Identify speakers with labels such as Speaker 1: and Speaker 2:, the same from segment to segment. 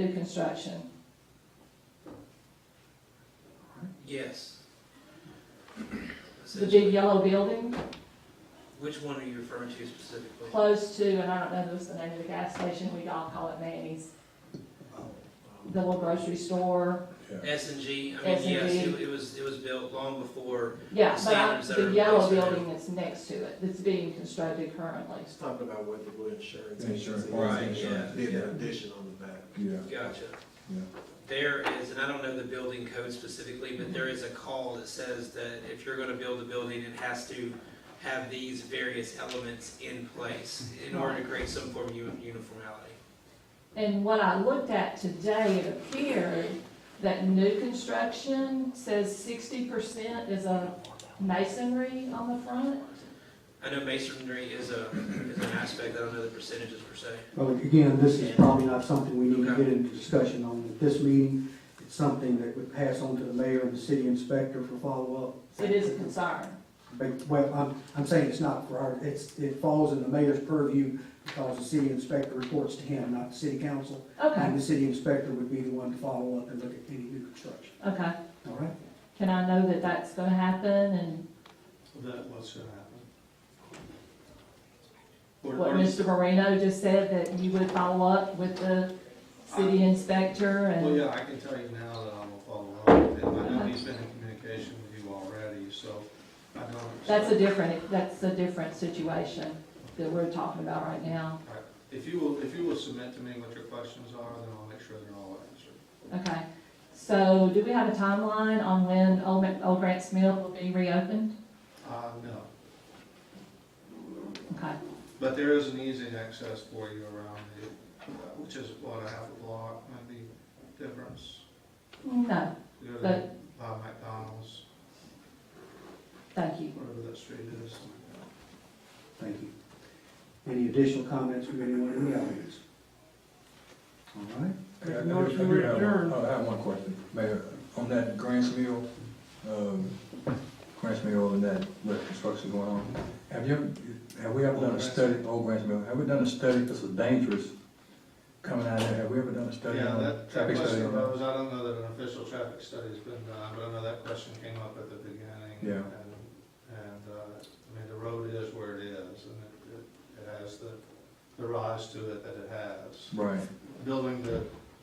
Speaker 1: new construction?
Speaker 2: Yes.
Speaker 1: The big yellow building
Speaker 2: Which one are you referring to specifically?
Speaker 1: close to, and I don't know if it's the name of the gas station, we all call it Manny's, the little grocery store.
Speaker 2: S and G, I mean, yes,
Speaker 1: S&G.
Speaker 2: it it was, it was built long before,
Speaker 1: Yeah, but I-
Speaker 2: Standards that
Speaker 1: the
Speaker 2: are
Speaker 1: yellow
Speaker 2: replaced there.
Speaker 1: building that's next to it, that's being constructed currently.
Speaker 3: It's talking about what the wood insurance.
Speaker 4: Insurance,
Speaker 3: agency
Speaker 4: right,
Speaker 3: is.
Speaker 2: yeah.
Speaker 3: Did
Speaker 4: Yeah.
Speaker 3: an addition on the back.
Speaker 4: Yeah,
Speaker 2: gotcha.
Speaker 4: Yeah.
Speaker 2: There is, and I don't know the building code specifically, but there is a call that says that if you're gonna build a building, it has to have these various elements in place in order to create some form of u- uniformity.
Speaker 1: And what I looked at today, it appeared that new construction says sixty percent is a masonry on the front.
Speaker 2: I know masonry is a, is an aspect, I don't know the percentages per se.
Speaker 5: Well, again, this is probably not something we need to get into discussion on at this meeting. It's something that would pass on to the mayor and the city inspector for follow-up.
Speaker 1: It is a concern.
Speaker 5: But, well, I'm, I'm saying it's not for our, it's, it falls in the mayor's purview because the city inspector reports to him, not the city council.
Speaker 1: Okay,
Speaker 5: And the city inspector would be the one to follow up and look at any new construction,
Speaker 1: okay.
Speaker 5: all right?
Speaker 1: Can I know that that's gonna happen and
Speaker 6: That was gonna happen. Or-
Speaker 1: what
Speaker 6: or-
Speaker 1: Mr. Moreno just said, that you would follow up with the city inspector
Speaker 6: Well,
Speaker 1: and,
Speaker 6: yeah, I can tell you now that I will follow up, with him. I know he's been in communication with you already, so I don't.
Speaker 1: that's a different, that's a different situation that we're talking about right now.
Speaker 6: If you will, if you will submit to me what your questions are, then I'll make sure they're all answered.
Speaker 1: Okay, so do we have a timeline on when Old, Ma- Old Grants Mill will be reopened?
Speaker 6: Uh, no,
Speaker 1: Okay,
Speaker 6: but there is an easy access for you around it, uh, which is what, a half a block, maybe difference.
Speaker 1: no,
Speaker 6: You go to
Speaker 1: But-
Speaker 6: by McDonald's,
Speaker 1: thank you.
Speaker 6: whatever that street is.
Speaker 5: Thank you. Any additional comments from anyone in the audience? All right,
Speaker 4: I I do I do have one- Oh, I have one question, Mayor, on that Grants Mill, um, Grants Mill and that, what construction going on, have you, have we ever done a study, old Grants Mill, have we done a study, this is dangerous, coming out of there, have we ever done a study?
Speaker 6: Yeah,
Speaker 4: on
Speaker 6: that, that
Speaker 4: traffic study
Speaker 6: question
Speaker 4: on that?
Speaker 6: arose, I don't know that an official traffic study's been done, but I know that question came up at the beginning.
Speaker 4: Yeah.
Speaker 6: And, and, uh, I mean, the road is where it is, and it, it- it has the, the rise to it that it has.
Speaker 4: Right,
Speaker 6: Building the,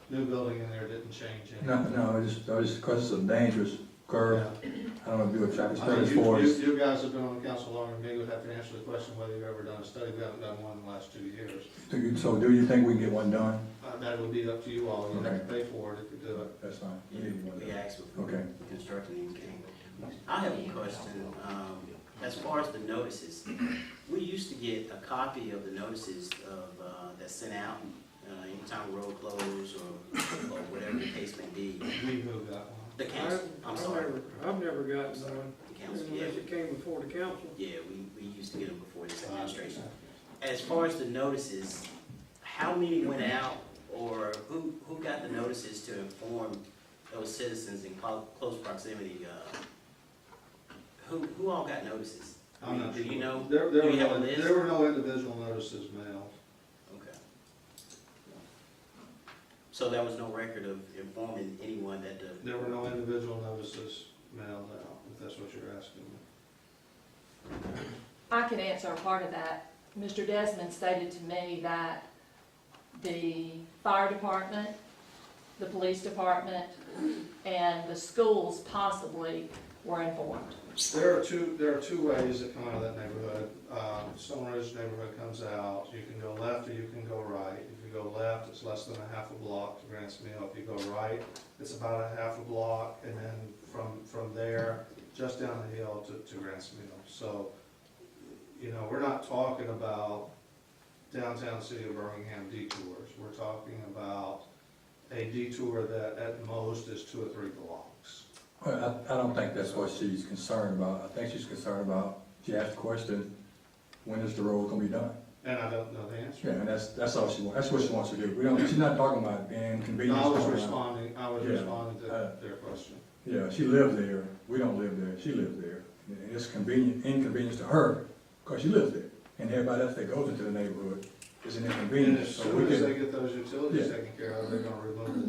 Speaker 6: new building in there didn't change anything.
Speaker 4: no, no, I just, I just, cause it's a dangerous curve,
Speaker 6: Yeah.
Speaker 4: I don't know if you do a traffic
Speaker 6: I mean,
Speaker 4: study
Speaker 6: you,
Speaker 4: for
Speaker 6: you,
Speaker 4: us.
Speaker 6: you guys have been on the council longer than me, would have to answer the question whether you've ever done a study, we haven't done one in the last two years.
Speaker 4: Do you- So do you think we can get one done?
Speaker 6: Uh, that would be up to you all, you'd have to pay for it if you do it.
Speaker 4: That's fine. We need one
Speaker 7: We
Speaker 4: done.
Speaker 7: asked before
Speaker 4: Okay.
Speaker 7: we constructed anything. I have a question, um, as far as the notices, we used to get a copy of the notices of, uh, that's sent out, uh, anytime road closed or, or whatever the case may be.
Speaker 6: We moved that one.
Speaker 7: The council, I'm sorry,
Speaker 8: I've never gotten one,
Speaker 7: the council, yeah,
Speaker 8: unless it came before the council.
Speaker 7: yeah, we, we used to get them before this administration. As far as the notices, how many went out, or who, who got the notices to inform those citizens in clo- close proximity? uh, Who, who all got notices? I
Speaker 6: I'm
Speaker 7: mean,
Speaker 6: not
Speaker 7: do
Speaker 6: sure.
Speaker 7: you know?
Speaker 6: There, there
Speaker 7: do
Speaker 6: were
Speaker 7: you have a
Speaker 6: no,
Speaker 7: list?
Speaker 6: there were no individual notices mailed.
Speaker 7: Okay. So there was no record of informing anyone that the,
Speaker 6: There were no individual notices mailed out, if that's what you're asking.
Speaker 1: I can answer a part of that. Mr. Desmond stated to me that the fire department, the police department, and the schools possibly were informed.
Speaker 6: There are two, there are two ways that come out of that neighborhood. Uh, Stone Ridge neighborhood comes out, you can go left or you can go right. If you go left, it's less than a half a block to Grants Mill. If you go right, it's about a half a block, and then from, from there, just down the hill to, to Grants Mill. So, you know, we're not talking about downtown city of Birmingham detours. We're talking about a detour that at most is two or three blocks.
Speaker 4: Well, I, I don't think that's what she's concerned about. I think she's concerned about, she asked the question, when is the road gonna be done?
Speaker 6: And I don't know the answer.
Speaker 4: Yeah, and that's, that's all she wants, that's what she wants to do. We don't, she's not talking about being
Speaker 6: No,
Speaker 4: inconvenienced.
Speaker 6: I was
Speaker 4: going around.
Speaker 6: responding, I was
Speaker 4: Yeah,
Speaker 6: responding to
Speaker 4: uh,
Speaker 6: their question.
Speaker 4: Yeah, she lives there, we don't live there, she lives there. And it's convenient, inconvenience to her, because she lives there, and everybody else that goes into the neighborhood. is an
Speaker 6: And
Speaker 4: inconvenience.
Speaker 6: as
Speaker 4: so we
Speaker 6: soon as
Speaker 4: can-
Speaker 6: they get those utilities taken care of, they're gonna remove the